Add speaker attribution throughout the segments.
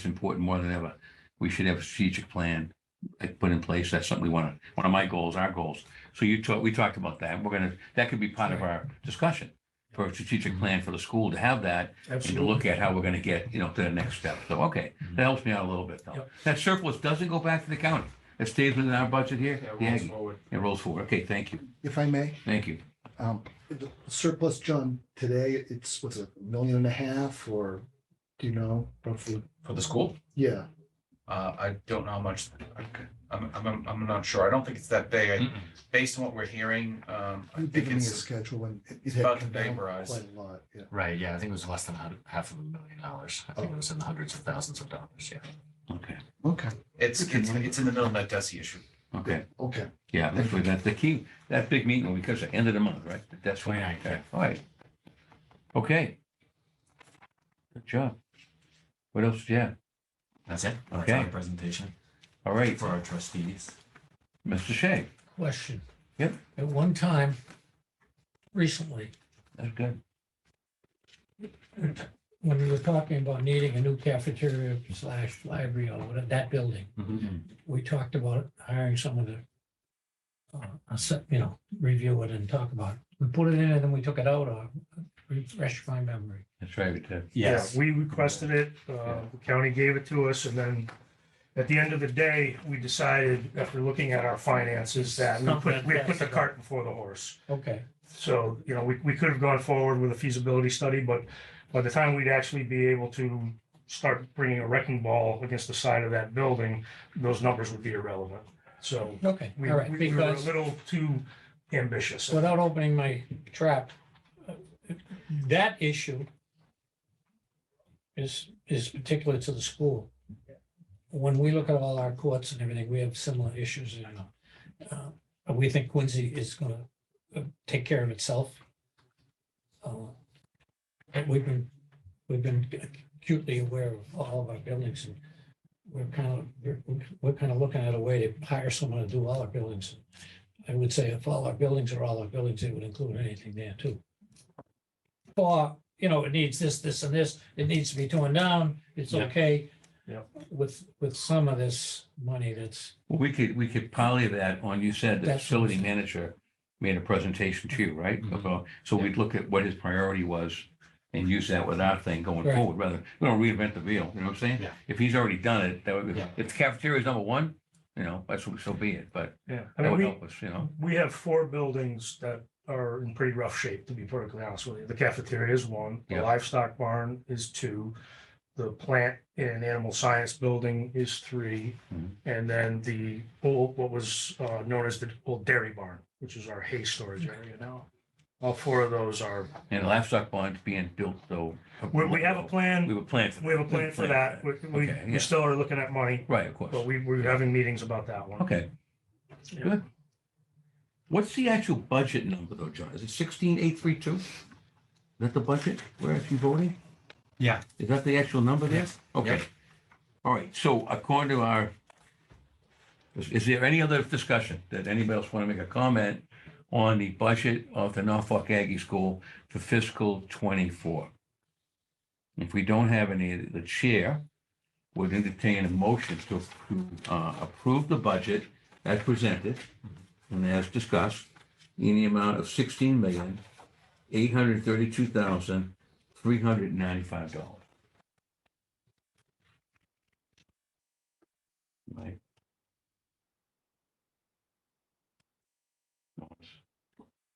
Speaker 1: it's important more than ever. We should have a strategic plan like, put in place. That's something we want to, one of my goals, our goals. So you talked, we talked about that. We're gonna, that could be part of our discussion for a strategic
Speaker 2: Mm-hmm.
Speaker 1: plan for the school to have that and to look at how we're gonna get, you know, to the next step. So, okay, that helps me out a little bit though.
Speaker 2: Mm-hmm. Yep.
Speaker 1: That surplus doesn't go back to the county. It stays within our budget here.
Speaker 2: That
Speaker 1: The
Speaker 2: rolls
Speaker 1: Aggie.
Speaker 2: forward.
Speaker 1: It rolls forward. Okay, thank you.
Speaker 3: if I may,
Speaker 1: Thank you.
Speaker 3: um, the surplus, John, today it's, what's it, a million and a half or, do you know, roughly?
Speaker 2: For the school?
Speaker 3: Yeah,
Speaker 2: Uh, I don't know how much, I'm, I'm, I'm not sure. I don't think it's that big. I- Based on what we're hearing, um, I
Speaker 3: you
Speaker 2: think
Speaker 3: give me a
Speaker 2: it's,
Speaker 3: schedule and it- it
Speaker 2: it's
Speaker 3: had
Speaker 2: about to
Speaker 3: come down
Speaker 2: vaporize.
Speaker 3: Quite a lot, yeah.
Speaker 4: Right, yeah, I think it was less than a hun- half of a million dollars. I think it was in the hundreds of thousands of dollars, yeah.
Speaker 1: Okay,
Speaker 3: Okay,
Speaker 2: it's, it's, it's in the middle of that DESI issue.
Speaker 1: okay.
Speaker 3: okay.
Speaker 1: Yeah, that's what, that's the key, that big meeting will be because the end of the month, right? That's when,
Speaker 4: 29th, yeah.
Speaker 1: all right. Okay. Good job. What else? Yeah,
Speaker 4: That's it? That's
Speaker 1: Okay.
Speaker 4: our Presentation
Speaker 1: all right,
Speaker 4: for our trustees.
Speaker 1: Mr. Shea,
Speaker 5: Question.
Speaker 1: Yep.
Speaker 5: At one time, recently,
Speaker 1: that's good.
Speaker 5: when we were talking about needing a new cafeteria slash library or whatever, that building, we talked about hiring someone to uh, assess- you know, review it and talk about it. We put it in and then we took it out or refresh my memory.
Speaker 1: That's right, we did.
Speaker 6: Yeah, we requested it, uh, the county gave it to us, and then at the end of the day, we decided, after looking at our finances, that we put, we put the cart before the horse.
Speaker 5: Okay,
Speaker 6: So, you know, we, we could have gone forward with a feasibility study, but by the time we'd actually be able to start bringing a wrecking ball against the side of that building, those numbers would be irrelevant. So
Speaker 5: okay,
Speaker 6: we,
Speaker 5: all right,
Speaker 6: we were a
Speaker 5: because
Speaker 6: little too ambitious.
Speaker 5: without opening my trap, uh, that issue is, is particular to the school. When we look at all our courts and everything, we have similar issues, you know. Uh, but We think Quincy is gonna uh, take care of itself. Uh, And we've been, we've been acutely aware of all of our buildings and we're kind of, we're, we're kind of looking at a way to hire someone to do all our buildings. I would say if all our buildings are all our buildings, it would include anything there too. Or, you know, it needs this, this and this, it needs to be torn down, it's
Speaker 2: Yeah.
Speaker 5: okay.
Speaker 6: Yeah.
Speaker 5: With, with some of this money that's,
Speaker 1: Well, we could, we could poly that on, you said the
Speaker 5: That's what I'm
Speaker 1: facility manager made a presentation to you, right?
Speaker 4: Mhm.
Speaker 1: So- So we'd look at what his priority was and use that with our thing going
Speaker 5: Right.
Speaker 1: forward, rather, we don't reinvent the wheel, you know what I'm saying?
Speaker 4: Yeah.
Speaker 1: If he's already done it, that would, be
Speaker 4: Yeah.
Speaker 1: if the cafeteria is number one, you know, that's, so be it, but
Speaker 6: Yeah.
Speaker 1: that
Speaker 6: I mean,
Speaker 1: would
Speaker 6: we,
Speaker 1: help us, you know?
Speaker 6: We have four buildings that are in pretty rough shape, to be perfectly honest with you. The cafeteria is one, the
Speaker 1: Yeah.
Speaker 6: livestock barn is two. The plant and animal science building is three,
Speaker 1: Mhm.
Speaker 6: and then the old, what was uh, known as the old dairy barn, which is our hay storage area now. All four of those are,
Speaker 1: And livestock bond's being built, so.
Speaker 6: we, we have a
Speaker 1: We
Speaker 6: plan,
Speaker 1: were planning. for
Speaker 6: we have a plan for that. We, we-
Speaker 1: Okay, yeah.
Speaker 6: we still are looking at money,
Speaker 1: Right, of
Speaker 6: but
Speaker 1: course.
Speaker 6: we, we're having meetings about that one.
Speaker 1: Okay.
Speaker 6: Yeah.
Speaker 1: Good. What's the actual budget number though, John? Is it sixteen eight three two? Is that the budget we're actually voting?
Speaker 4: Yeah.
Speaker 1: Is that the actual number there? Okay. All right, so according to our, is, is there any other discussion that anybody else want to make a comment on the budget of the Norfolk Aggie School for fiscal twenty-four? If we don't have any, the chair would entertain a motion to, to, uh, approve the budget as presented and as discussed in the amount of sixteen million, eight hundred thirty-two thousand, three hundred ninety-five dollars. Right. Did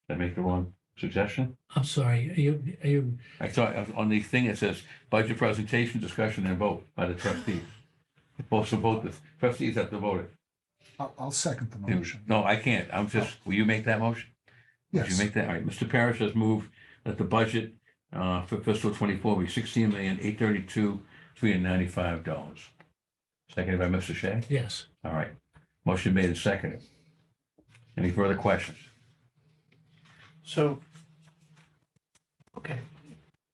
Speaker 1: I make the wrong suggestion?
Speaker 5: I'm sorry, are you, are you,
Speaker 1: I thought uh, on the thing it says budget presentation, discussion and vote by the trustees. Both, so both the trustees have to vote it.
Speaker 3: I'll, I'll second the
Speaker 1: Yeah.
Speaker 3: motion.
Speaker 1: No, I can't. I'm just, will you make that motion? Would you
Speaker 3: Yes,
Speaker 1: make that? All right. Mr. Parrish has moved that the budget uh, for fiscal twenty-four be sixteen million, eight thirty-two, three hundred ninety-five dollars. Seconded by Mr. Shea.
Speaker 5: yes,
Speaker 1: All right. Motion made and seconded. Any further questions?
Speaker 7: So, okay,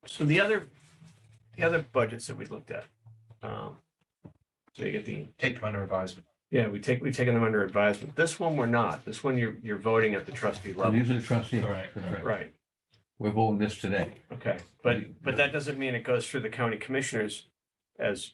Speaker 7: so the other, the other budgets that we looked at, um, so you get the,
Speaker 2: Take them under advisement.
Speaker 7: yeah, we take, we taken them under advisement. This one we're not. This one you're, you're voting at the trustee
Speaker 1: So
Speaker 7: level.
Speaker 1: These are the trustees.
Speaker 4: All right.
Speaker 1: That's right.
Speaker 7: Right,
Speaker 1: We're voting this today.
Speaker 7: okay, but, but that doesn't mean it goes through the county commissioners as